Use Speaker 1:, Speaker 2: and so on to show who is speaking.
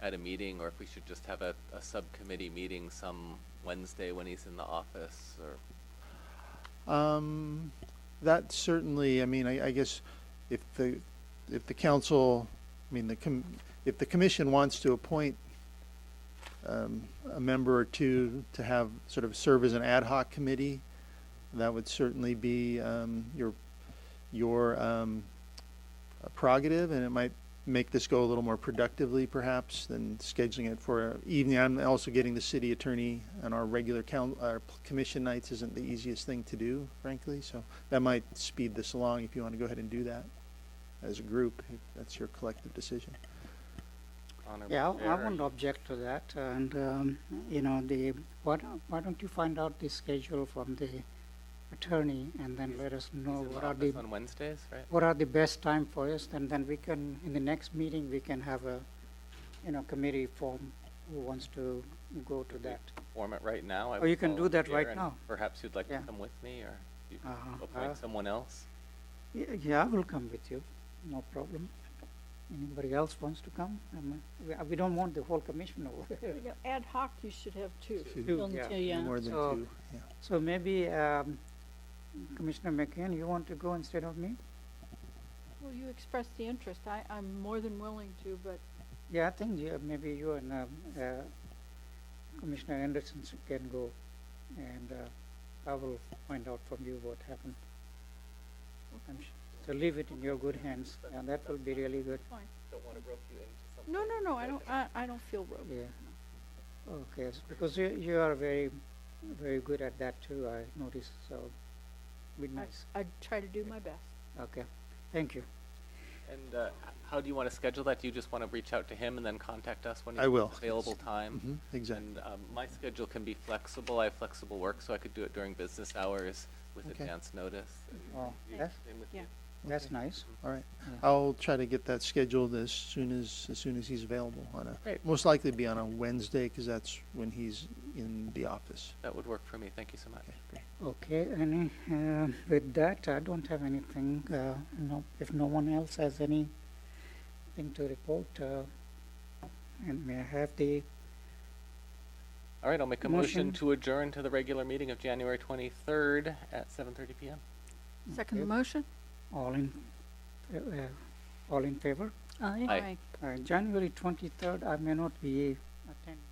Speaker 1: at a meeting, or if we should just have a, a subcommittee meeting some Wednesday when he's in the office, or,
Speaker 2: Um, that certainly, I mean, I, I guess if the, if the council, I mean, the com, if the commission wants to appoint um, a member or two to have, sort of serve as an ad hoc committee, that would certainly be, um, your, your, um, prerogative, and it might make this go a little more productively perhaps than scheduling it for evening. I'm also getting the city attorney on our regular coun our p- commission nights isn't the easiest thing to do, frankly, so that might speed this along if you want to go ahead and do that as a group, if that's your collective decision.
Speaker 1: Honorable
Speaker 3: Yeah, I- I
Speaker 1: Chair.
Speaker 3: won't object to that, and, um, you know, the, why don't, why don't you find out the schedule from the attorney, and then let us
Speaker 1: He's
Speaker 3: know
Speaker 1: in the
Speaker 3: what are the,
Speaker 1: office on Wednesdays, right?
Speaker 3: what are the best time for us, and then we can, in the next meeting, we can have a, you know, committee form who wants to go to that.
Speaker 1: Form it right now. I
Speaker 3: Oh,
Speaker 1: would
Speaker 3: you can do that
Speaker 1: volunteer,
Speaker 3: right
Speaker 1: and
Speaker 3: now.
Speaker 1: Perhaps you'd like to
Speaker 3: Yeah.
Speaker 1: come with me, or you
Speaker 3: Uh, uh,
Speaker 1: appoint someone else?
Speaker 3: y- Yeah, I will come with you, no problem. Anybody else wants to come? Um, we- We don't want the whole commission over there.
Speaker 4: You know, ad hoc, you should have two.
Speaker 2: Two.
Speaker 3: Two,
Speaker 4: Don't
Speaker 3: yeah.
Speaker 4: you, yeah.
Speaker 2: More than
Speaker 3: So-
Speaker 2: two, yeah.
Speaker 3: So maybe um, Commissioner McCann, you want to go instead of me?
Speaker 4: Well, you expressed the interest. I, I'm more than willing to, but
Speaker 3: Yeah, I think you, maybe you and um, uh, Commissioner Anderson s- can go, and uh, I will find out from you what happened. And sh- So leave it in your good hands, and that will be really good,
Speaker 4: fine.
Speaker 1: Don't want to rope you into something.
Speaker 4: No, no, no, I don't, I, I don't feel roped.
Speaker 3: yeah. Okay, s- because you, you are very, very good at that too, I noticed, so, be
Speaker 4: I,
Speaker 3: nice,
Speaker 4: I try to do my best.
Speaker 3: okay, thank you.
Speaker 1: And uh, h- how do you want to schedule that? Do you just want to reach out to him and then contact us when
Speaker 2: I
Speaker 1: he's
Speaker 2: will.
Speaker 1: available time?
Speaker 2: Mhm, Exactly.
Speaker 1: And um, my schedule can be flexible. I have flexible work, so I could do it during business hours with
Speaker 2: Okay.
Speaker 1: advance notice.
Speaker 3: Oh,
Speaker 1: You-
Speaker 3: that's,
Speaker 1: same with
Speaker 4: Yeah.
Speaker 1: you.
Speaker 3: that's nice,
Speaker 2: All right.
Speaker 3: Yeah.
Speaker 2: I'll try to get that scheduled as soon as, as soon as he's available on a,
Speaker 1: Great.
Speaker 2: most likely be on a Wednesday, because that's when he's in the office.
Speaker 1: That would work for me. Thank you so much.
Speaker 3: Okay, any, uh, with that, I don't have anything, uh, no, if no one else has anything to report, uh, and may I have the,
Speaker 1: All right, I'll make a motion
Speaker 3: Motion.
Speaker 1: to adjourn to the regular meeting of January 23rd at 7:30 PM.
Speaker 4: Second the
Speaker 3: Okay.
Speaker 4: motion?
Speaker 3: all in, uh, uh, all in favor?
Speaker 1: Aye.
Speaker 3: Uh, January twenty-third, I may not be attending.